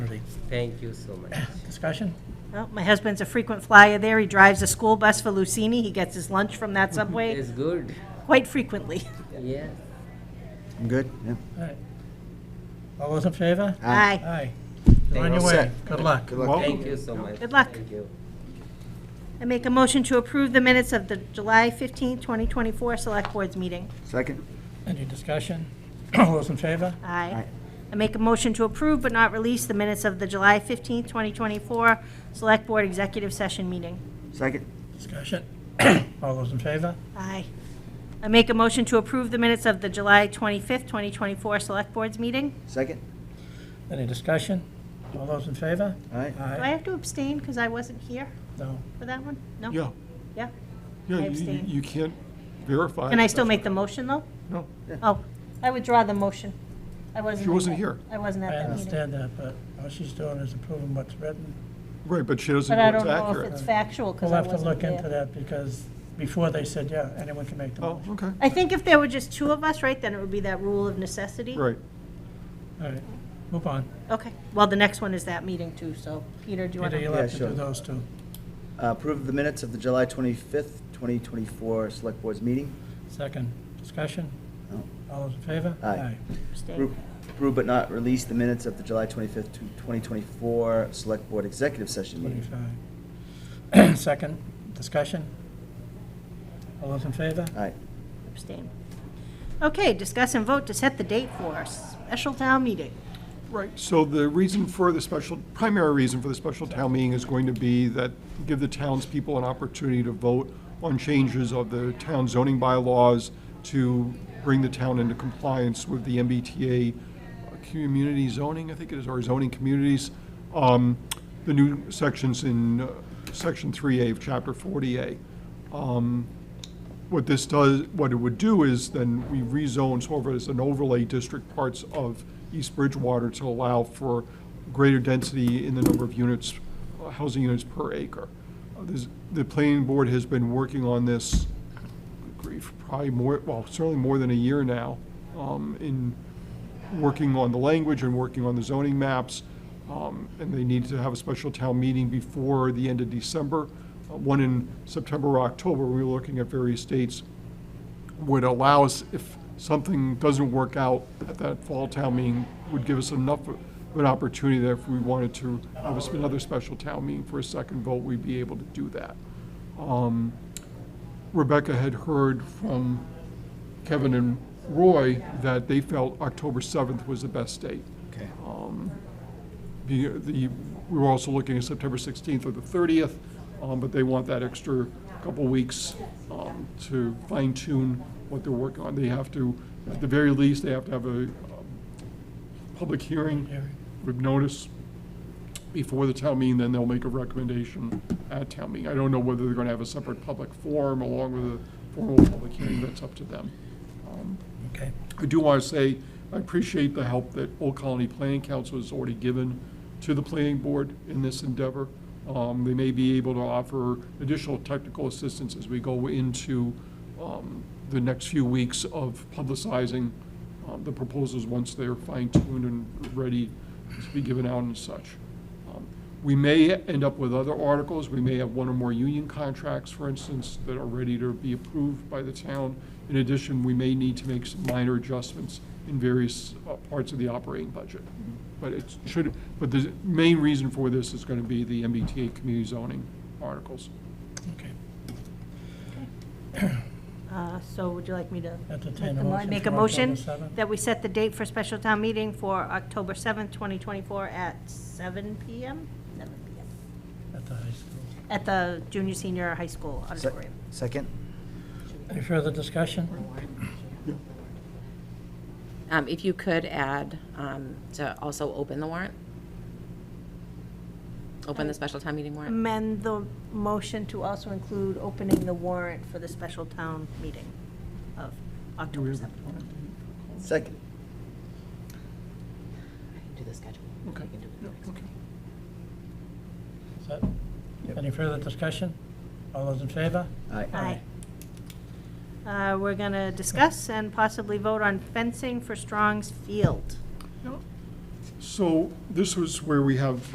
Thank you so much. Discussion? Well, My husband's a frequent flyer there. He drives a school bus for Lucini. He gets his lunch from that subway It's good. quite frequently. Yeah. I'm good, yeah. All right. All those in favor? Ah. Aye. Aye. You're on your All way. set. Good luck. Good luck. Thank you so much. Good luck. Thank you. I make a motion to approve the minutes of the July 15, 2024 Select Boards meeting. Second? Any discussion? All those in favor? Aye. Aye. I make a motion to approve but not release the minutes of the July 15, 2024 Select Board Executive Session meeting. Second? Discussion? All those in favor? Aye. I make a motion to approve the minutes of the July 25, 2024 Select Boards meeting. Second? Any discussion? All those in favor? All right. Do I have to abstain because I wasn't here No. for that one? No? Yeah, Yeah? I yeah, you- you, abstain. you can't verify. Can it. I still make the motion, though? No, Oh, I withdraw the motion. I wasn't. She at wasn't that- here. I wasn't I at that meeting. understand that, but all she's doing is approving what's written. right, but she doesn't But I know it's don't know if it's accurate. factual We'll because I have to wasn't look into there. that because before they said, yeah, anyone can make the Oh, motion. okay, I think if there were just two of us, right, then it would be that rule of necessity. right. All right, move on. Okay, well, the next one is that meeting too, so, Peter, do you want Peter, to? you'll have to Yeah, do sure. those two. Uh, Approve the minutes of the July 25th, 2024 Select Boards meeting. Second, discussion? No. All those in favor? Aye. Appro- Approve but not release the minutes of the July 25th, to 2024 Select Board Executive Session meeting. Twenty-five. Second, discussion? All those in favor? All right. Abstain. Okay, discuss and vote to set the date for a special town meeting. Right, so the reason for the special, primary reason for the special town meeting is going to be that, give the townspeople an opportunity to vote on changes of the town zoning bylaws to bring the town into compliance with the MBTA uh, community zoning, I think it is, or zoning communities, um, the new sections in uh, Section 3A of Chapter 40A. Um, what this does, what it would do is then we rezone sort of as an overlay district parts of East Bridgewater to allow for greater density in the number of units, uh, housing units per acre. Uh, this- The planning board has been working on this good grief, probably more, well, certainly more than a year now, um, in working on the language and working on the zoning maps. Um, and they need to have a special town meeting before the end of December. Uh, One in September or October, we were looking at various dates, would allow us, if something doesn't work out at that fall town meeting, would give us enough of an opportunity that if we wanted to have a- another special town meeting for a second vote, we'd be able to do that. Um, Rebecca had heard from Kevin and Roy that they felt October 7th was the best date. Okay. The, the, we were also looking at September 16th or the 30th, um, but they want that extra couple weeks, um, to fine tune what they're working on. They have to, at the very least, they have to have a, um, public hearing with notice before the town meeting, then they'll make a recommendation at town meeting. I don't know whether they're gonna have a separate public forum along with a formal public hearing, that's up to them. Um, Okay, I do want to say, I appreciate the help that Old Colony Planning Council has already given to the planning board in this endeavor. Um, They may be able to offer additional technical assistance as we go into um, the next few weeks of publicizing um, the proposals once they're fine-tuned and ready to be given out and such. Um, We may end up with other articles, we may have one or more union contracts, for instance, that are ready to be approved by the town. In addition, we may need to make some minor adjustments in various uh, parts of the operating budget. But it should, but the main reason for this is gonna be the MBTA community zoning articles. okay. Uh, So would you like me to? Entertain make a the mo- motion Make for a motion October 7th? that we set the date for special town meeting for October 7th, 2024 at 7 PM? 7 PM. At the high school. At the junior, senior high school Se- auditorium. Second? Any further discussion? Um, If you could add um, to also open the warrant? Open the special town meeting warrant? Amend the motion to also include opening the warrant for the special town meeting of Do October we have a 7th. time? Second. Do the schedule. Okay. Yeah, okay. Is that- Yep. Any further discussion? All those in favor? All right. Aye. Uh, We're going to discuss and possibly vote on fencing for Strong's Field. No. So this was where we have